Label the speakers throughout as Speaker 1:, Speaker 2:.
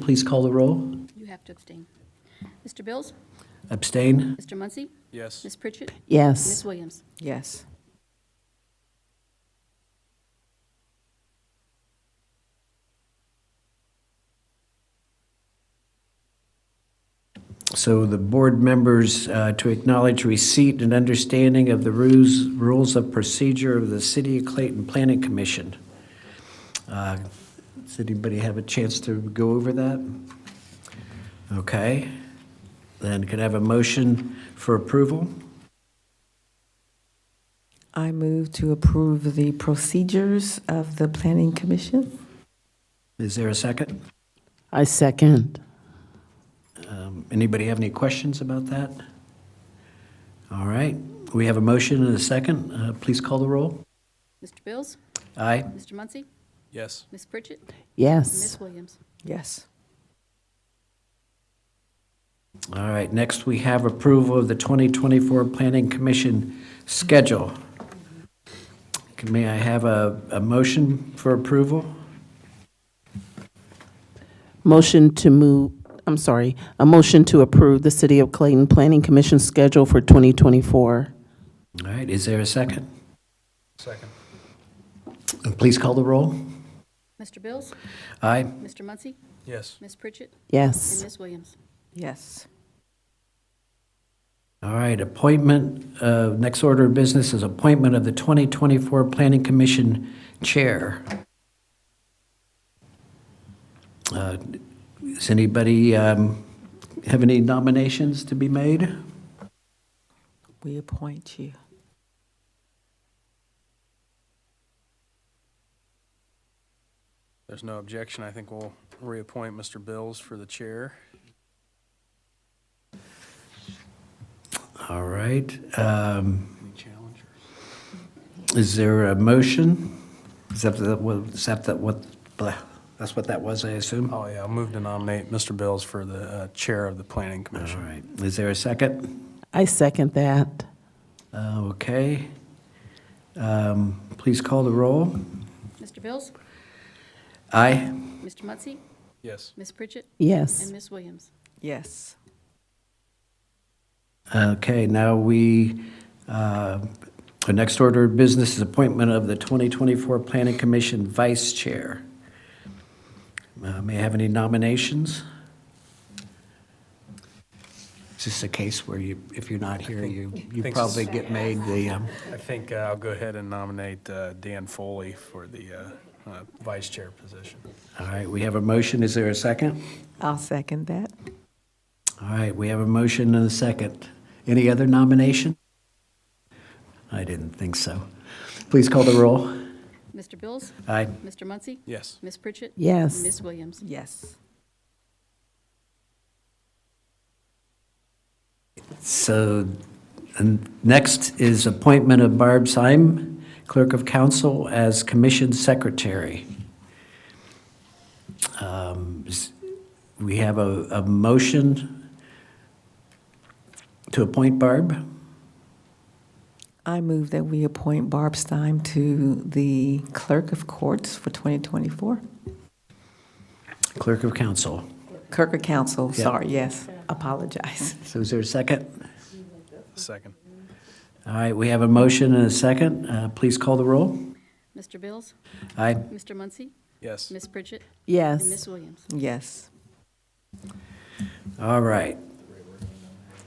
Speaker 1: please call the roll.
Speaker 2: You have to abstain. Mr. Bills?
Speaker 1: Abstain?
Speaker 2: Mr. Muncy?
Speaker 3: Yes.
Speaker 2: Ms. Pritchett? Ms.
Speaker 4: Yes.
Speaker 2: Williams?
Speaker 4: Yes.
Speaker 1: So the board members uh, to acknowledge receipt and understanding of the rules, rules of procedure of the City of Clayton Planning Commission. Uh, Does anybody have a chance to go over that? Okay. Then could I have a motion for approval?
Speaker 4: I move to approve the procedures of the Planning Commission.
Speaker 1: Is there a second?
Speaker 5: I second.
Speaker 1: Um, Anybody have any questions about that? All right, we have a motion and a second. Uh, Please call the roll.
Speaker 2: Mr. Bills?
Speaker 1: Aye.
Speaker 2: Mr. Muncy?
Speaker 3: Yes.
Speaker 2: Ms. Pritchett? Ms.
Speaker 5: Yes.
Speaker 2: Williams?
Speaker 4: Yes.
Speaker 1: All right, next we have approval of the 2024 Planning Commission schedule. Can- May I have a, a motion for approval?
Speaker 5: Motion to move, I'm sorry, a motion to approve the City of Clayton Planning Commission schedule for 2024.
Speaker 1: All right, is there a second?
Speaker 3: Second.
Speaker 1: Uh, Please call the roll.
Speaker 2: Mr. Bills?
Speaker 1: Aye.
Speaker 2: Mr. Muncy?
Speaker 3: Yes.
Speaker 2: Ms. Pritchett? And
Speaker 5: Yes.
Speaker 2: Ms. Williams?
Speaker 4: Yes.
Speaker 1: All right, appointment, uh, next order of business is appointment of the 2024 Planning Commission Chair. Uh, Does anybody um, have any nominations to be made?
Speaker 4: We appoint you.
Speaker 3: There's no objection. I think we'll reappoint Mr. Bills for the chair.
Speaker 1: All right. um,
Speaker 3: Any challenger?
Speaker 1: Is there a motion? Is that the- what, is that the- what, blah, that's what that was, I assume? All
Speaker 3: Oh, yeah, I'll move to nominate Mr. Bills for the uh, chair of the planning commission.
Speaker 1: right. Is there a second?
Speaker 5: I second that.
Speaker 1: Uh, Okay. Um, Please call the roll.
Speaker 2: Mr. Bills?
Speaker 1: Aye.
Speaker 2: Mr. Muncy?
Speaker 3: Yes.
Speaker 2: Ms. Pritchett? And
Speaker 5: Yes.
Speaker 2: Ms. Williams?
Speaker 4: Yes.
Speaker 1: Okay, now we, uh, the next order of business is appointment of the 2024 Planning Commission Vice Chair. Uh, May I have any nominations? Is this a case where you, if you're not here, you, you
Speaker 3: think
Speaker 1: probably
Speaker 3: so.
Speaker 1: get made the, um,
Speaker 3: I think uh, I'll go ahead and nominate uh, Dan Foley for the uh, uh, vice chair position.
Speaker 1: all right, we have a motion, is there a second?
Speaker 4: I'll second that.
Speaker 1: All right, we have a motion and a second. Any other nomination? I didn't think so. Please call the roll.
Speaker 2: Mr. Bills?
Speaker 1: Aye.
Speaker 2: Mr. Muncy?
Speaker 3: Yes.
Speaker 2: Ms. Pritchett?
Speaker 5: Yes.
Speaker 2: And Ms. Williams?
Speaker 4: Yes.
Speaker 1: So, and next is appointment of Barb Syme, Clerk of Council, as Commission Secretary. Um, s- We have a, a motion to appoint Barb.
Speaker 4: I move that we appoint Barb Stein to the Clerk of Courts for 2024.
Speaker 1: Clerk of Council.
Speaker 4: Clerk of Council,
Speaker 1: Yeah.
Speaker 4: sorry, yes. Apologize.
Speaker 1: So is there a second?
Speaker 3: Second.
Speaker 1: All right, we have a motion and a second. Uh, Please call the roll.
Speaker 2: Mr. Bills?
Speaker 1: Aye.
Speaker 2: Mr. Muncy?
Speaker 3: Yes.
Speaker 2: Ms. Pritchett? And Ms.
Speaker 5: Yes.
Speaker 2: Williams?
Speaker 4: Yes.
Speaker 1: All right.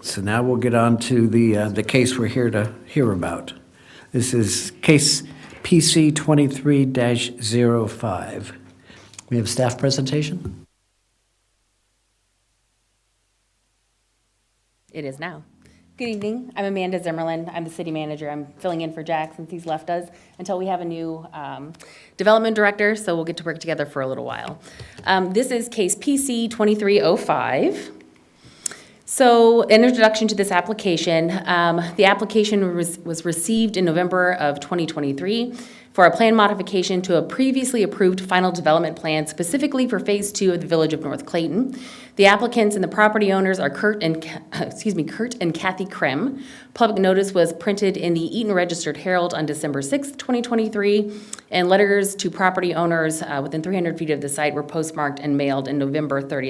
Speaker 1: So now we'll get on to the, uh, the case we're here to hear about. This is case PC 23-05. We have staff presentation?
Speaker 6: It is now. Good evening. I'm Amanda Zimmerlin. I'm the city manager. I'm filling in for Jack since he's left us until we have a new um, development director, so we'll get to work together for a little while. Um, This is case PC 2305. So, an introduction to this application. Um, The application was was received in November of 2023 for a plan modification to a previously approved final development plan specifically for Phase 2 of the Village of North Clayton. The applicants and the property owners are Kurt and, Ca- excuse me, Kurt and Kathy Krim. Public notice was printed in the Eaton Registered Herald on December 6th, 2023, and letters to property owners uh, within 300 feet of the site were postmarked and mailed in November 30th.